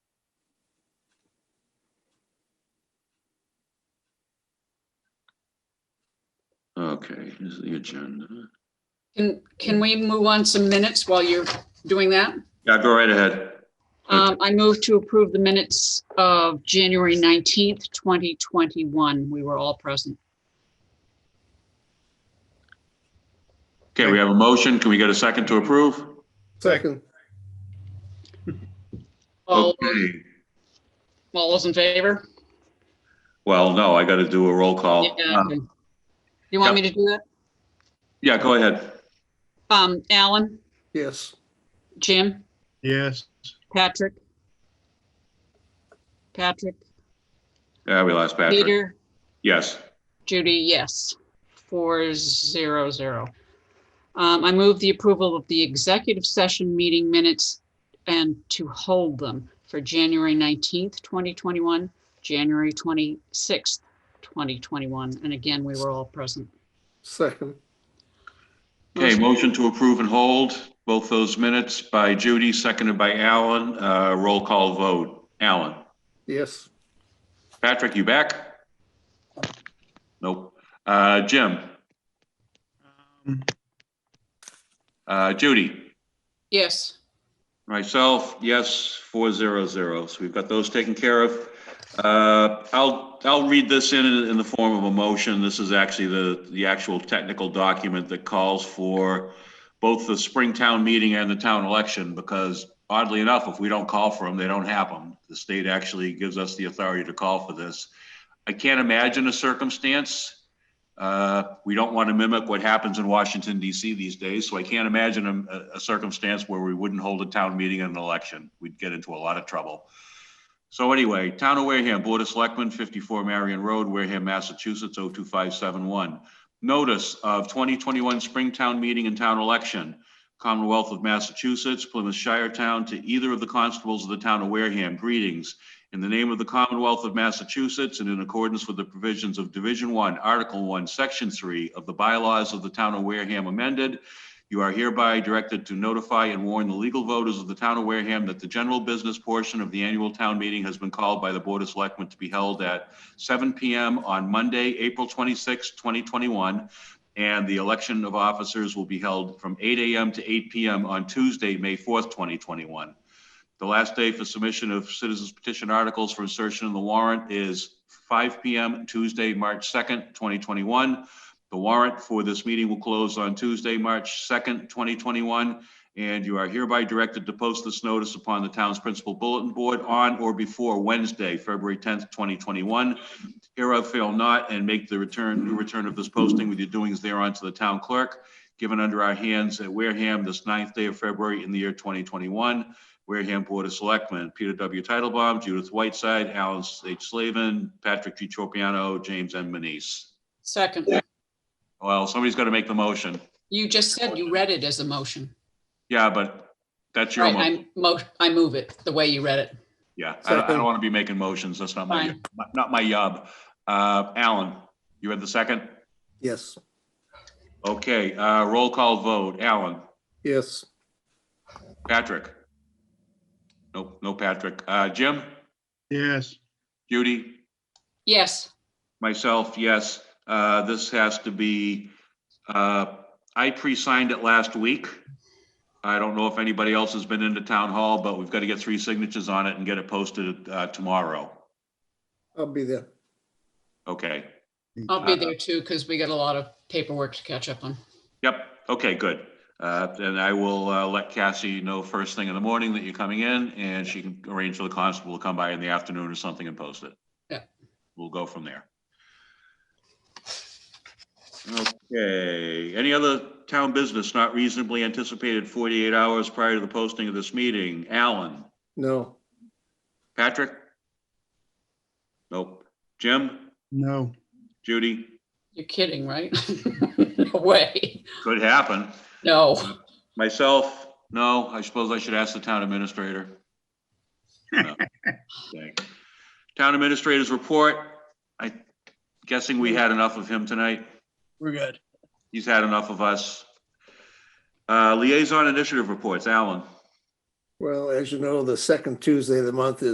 Okay, is the agenda. Can, can we move on some minutes while you're doing that? Yeah, go right ahead. Um, I move to approve the minutes of January 19th, 2021. We were all present. Okay, we have a motion. Can we get a second to approve? Second. All, Okay. all those in favor? Well, no, I got to do a roll call. Yeah. Uh, okay. You want me to do that? Yeah, go ahead. Um, Alan, Yes. Jim, Yes. Patrick? Patrick, Yeah, we lost Patrick. Peter, Yes. Judy, yes. Four zero zero. Um, I move the approval of the executive session meeting minutes and to hold them for January nineteenth, twenty twenty-one, January twenty-sixth, twenty twenty-one, and again, we were all present. Second. Okay, motion to approve and hold both those minutes by Judy, seconded by Alan. Uh, Roll call vote. Alan? Yes. Patrick, you back? Nope. Uh, Jim? Uh, Judy? Yes, Myself, yes, four zero zero. So we've got those taken care of. Uh, I'll, I'll read this in, in the form of a motion. This is actually the, the actual technical document that calls for both the Springtown meeting and the town election, because oddly enough, if we don't call for them, they don't happen. The state actually gives us the authority to call for this. I can't imagine a circumstance. Uh, we don't want to mimic what happens in Washington DC these days, so I can't imagine a, a circumstance where we wouldn't hold a town meeting and an election. We'd get into a lot of trouble. So anyway, Town of Wareham, Board of Selectmen, 54 Marion Road, Wareham, Massachusetts, 02571. Notice of 2021 Springtown Meeting and Town Election, Commonwealth of Massachusetts, Plymouth Shire Town, to either of the constables of the Town of Wareham, greetings. In the name of the Commonwealth of Massachusetts and in accordance with the provisions of Division One, Article One, Section Three of the bylaws of the Town of Wareham amended, you are hereby directed to notify and warn the legal voters of the Town of Wareham that the general business portion of the annual town meeting has been called by the Board of Selectmen to be held at seven PM on Monday, April 26, 2021, and the election of officers will be held from eight AM to eight PM on Tuesday, May 4th, 2021. The last day for submission of citizens petition articles for insertion in the warrant is 5 PM Tuesday, March 2nd, 2021. The warrant for this meeting will close on Tuesday, March 2nd, 2021. And you are hereby directed to post this notice upon the town's principal bulletin board on or before Wednesday, February 10th, 2021. Hereof fail not and make the return, new return of this posting with your doings thereon to the town clerk, given under our hands at Wareham this ninth day of February in the year 2021. Wareham Board of Selectmen, Peter W. Titlebaum, Judith Whiteside, Alan H. Slavin, Patrick G. Tropiano, James M. Manise. second. Well, somebody's got to make the motion. You just said you read it as a motion. Yeah, but that's your Right, motion. I mo, I move it the way you read it. Yeah, I don't- I Second. don't want to be making motions. That's not my, Fine. not my job. Uh, Alan, you had the second? Yes. Okay, uh, roll call vote. Alan? Yes. Patrick? Nope, no Patrick. Uh, Jim? Yes. Judy? Yes, Myself, yes. Uh, This has to be, uh, I pre-signed it last week. I don't know if anybody else has been into town hall, but we've got to get three signatures on it and get it posted uh, tomorrow. I'll be there. Okay. I'll Uh, be there too, because we got a lot of paperwork to catch up on. Yep, okay, good. Uh, Then I will uh, let Cassie know first thing in the morning that you're coming in, and she can arrange for the constable to come by in the afternoon or something and post it. Yeah. We'll go from there. Okay, any other town business not reasonably anticipated 48 hours prior to the posting of this meeting? Alan, No. Patrick? Nope. Jim, No. Judy? You're kidding, right? No way. Could happen. No. Myself, no, I suppose I should ask the town administrator. No. Okay. Town administrator's report, I guessing we had enough of him tonight. We're good. He's had enough of us. Uh, liaison initiative reports, Alan. Well, as you know, the second Tuesday of the month is